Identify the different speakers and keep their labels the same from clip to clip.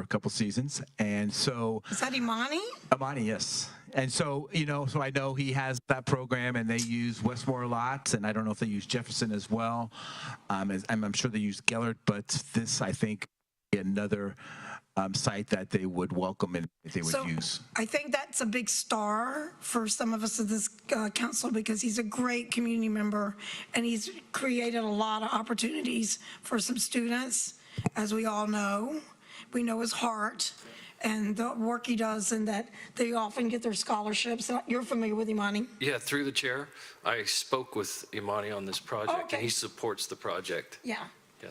Speaker 1: a couple seasons, and so
Speaker 2: Is that Imani?
Speaker 1: Amani, yes. And so, you know, so I know he has that program and they use Westmore a lot. And I don't know if they use Jefferson as well. Um, as, I'm, I'm sure they use Gellert, but this, I think, another um, site that they would welcome and they would
Speaker 2: So
Speaker 1: use.
Speaker 2: I think that's a big star for some of us at this uh, council because he's a great community member and he's created a lot of opportunities for some students, as we all know. We know his heart and the work he does and that they often get their scholarships. Uh, You're familiar with Imani?
Speaker 3: Yeah, through the chair, I spoke with Imani on this project, and
Speaker 2: Okay.
Speaker 3: he supports the project.
Speaker 2: Yeah.
Speaker 3: Yeah.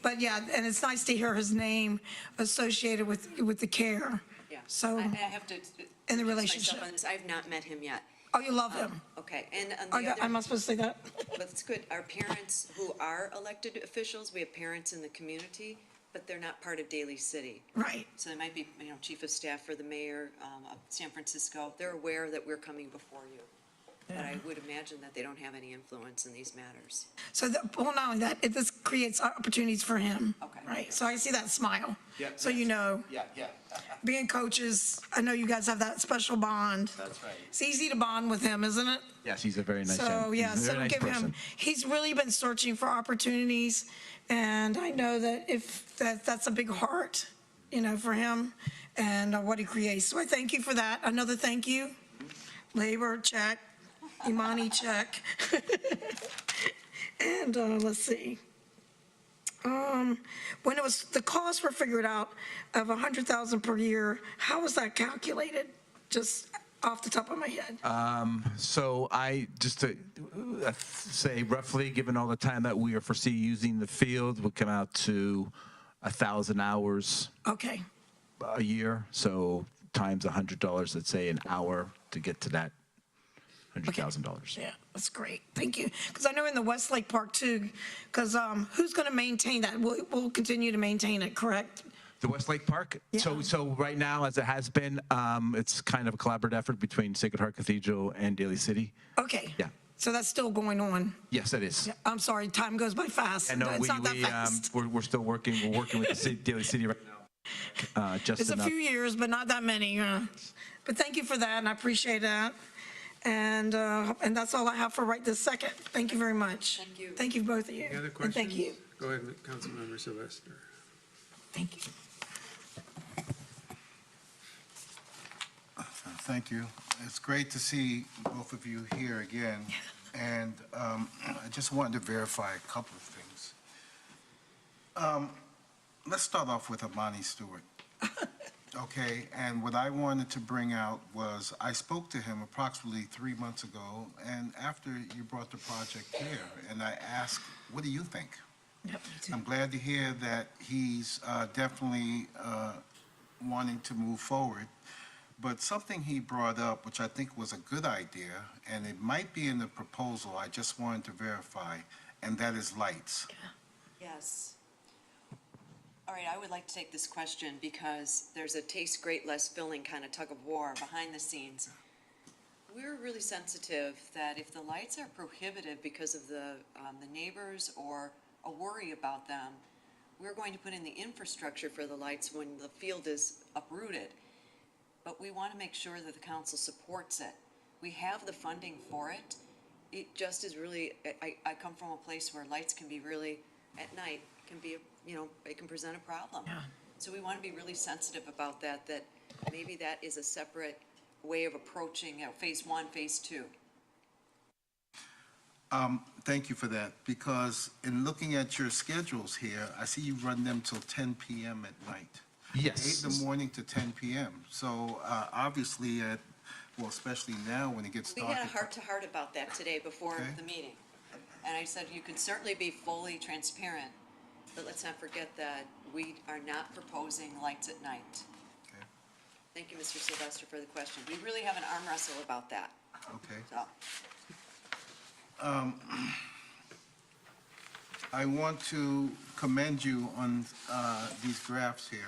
Speaker 2: But yeah, and it's nice to hear his name associated with, with the care.
Speaker 4: Yeah.
Speaker 2: So,
Speaker 4: I I have to. uh,
Speaker 2: in the
Speaker 4: myself
Speaker 2: relationship.
Speaker 4: on this. I've not met him yet.
Speaker 2: oh, you love him.
Speaker 4: Okay, and
Speaker 2: Are
Speaker 4: on the
Speaker 2: you- Am
Speaker 4: other,
Speaker 2: I supposed to say that?
Speaker 4: but it's good, our parents who are elected officials, we have parents in the community, but they're not part of Daly City.
Speaker 2: Right.
Speaker 4: So they might be, you know, chief of staff for the mayor um, of San Francisco. They're aware that we're coming before you. But I would imagine that they don't have any influence in these matters.
Speaker 2: So, that- well, no, that, it- this creates opportunities for him.
Speaker 4: Okay.
Speaker 2: Right, so I see that smile.
Speaker 1: Yeah,
Speaker 2: So you
Speaker 1: yes.
Speaker 2: know,
Speaker 1: Yeah, yeah.
Speaker 2: being coaches, I know you guys have that special bond.
Speaker 1: That's right.
Speaker 2: It's easy to bond with him, isn't it?
Speaker 1: Yes, he's a very nice
Speaker 2: So,
Speaker 1: young-
Speaker 2: yeah,
Speaker 1: he's a very
Speaker 2: so
Speaker 1: nice
Speaker 2: give him,
Speaker 1: person.
Speaker 2: he's really been searching for opportunities. And I know that if, that, that's a big heart, you know, for him and uh, what he creates. So I thank you for that. Another thank you. Labor, check. Imani, check. And, uh, let's see. Um, when it was, the costs were figured out of a hundred thousand per year, how was that calculated? Just off the top of my head.
Speaker 1: Uh, So I, just to uh, say roughly, given all the time that we are foresee using the field, would come out to a thousand hours
Speaker 2: Okay.
Speaker 1: a year, so times $100, let's say an hour to get to that $100,000.
Speaker 2: Yeah, that's great. Thank you. Because I know in the Westlake Park too, because um, who's going to maintain that? We'll, we'll continue to maintain it, correct?
Speaker 1: The Westlake Park? So,
Speaker 2: Yeah.
Speaker 1: so right now, as it has been, um, it's kind of a collaborative effort between Sacred Heart Cathedral and Daly City.
Speaker 2: Okay.
Speaker 1: Yeah.
Speaker 2: So that's still going on.
Speaker 1: Yes, it is.
Speaker 2: I'm sorry, time goes by fast.
Speaker 1: And no,
Speaker 2: It's
Speaker 1: we,
Speaker 2: not that
Speaker 1: we, um,
Speaker 2: fast.
Speaker 1: we're, we're still working, we're working with the city, Daly City right now. Uh, just
Speaker 2: It's a
Speaker 1: enough.
Speaker 2: few years, but not that many. uh, But thank you for that, and I appreciate that. And, uh, and that's all I have for right this second. Thank you very much.
Speaker 4: Thank you.
Speaker 2: Thank you, both of you.
Speaker 5: Any other
Speaker 2: And
Speaker 5: questions?
Speaker 2: thank you.
Speaker 5: Go ahead, Councilmember Sylvester.
Speaker 2: Thank you.
Speaker 6: Thank you. It's great to see both of you here again. And um, I just wanted to verify a couple of things. Um, Let's start off with Amani Stewart. Okay, and what I wanted to bring out was, I spoke to him approximately three months ago, and after you brought the project here, and I asked, what do you think? I'm glad to hear that he's uh, definitely uh, wanting to move forward. But something he brought up, which I think was a good idea, and it might be in the proposal, I just wanted to verify, and that is lights.
Speaker 4: Yes. All right, I would like to take this question because there's a taste great, less filling kind of tug of war behind the scenes. We're really sensitive that if the lights are prohibitive because of the, um, the neighbors or a worry about them, we're going to put in the infrastructure for the lights when the field is uprooted. But we want to make sure that the council supports it. We have the funding for it. It just is really, I- I, I come from a place where lights can be really, at night, can be, you know, it can present a problem. So we want to be really sensitive about that, that maybe that is a separate way of approaching, you know, phase one, phase two.
Speaker 6: Um, Thank you for that, because in looking at your schedules here, I see you run them till 10 PM at night.
Speaker 1: Yes.
Speaker 6: Eight in the morning to 10 PM. So uh, obviously, at- well, especially now when it gets
Speaker 4: We
Speaker 6: dark.
Speaker 4: had a
Speaker 6: it's-
Speaker 4: heart-to-heart about that today before
Speaker 6: Okay.
Speaker 4: the meeting. And I said, you can certainly be fully transparent, but let's not forget that we are not proposing lights at night.
Speaker 6: Okay.
Speaker 4: Thank you, Mr. Sylvester, for the question. We really have an arm wrestle about that,
Speaker 6: Okay.
Speaker 4: so.
Speaker 6: Um, I want to commend you on uh, these graphs here.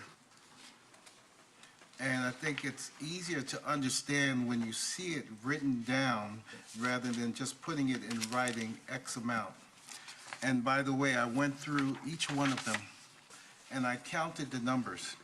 Speaker 6: And I think it's easier to understand when you see it written down rather than just putting it in writing X amount. And by the way, I went through each one of them and I counted the numbers.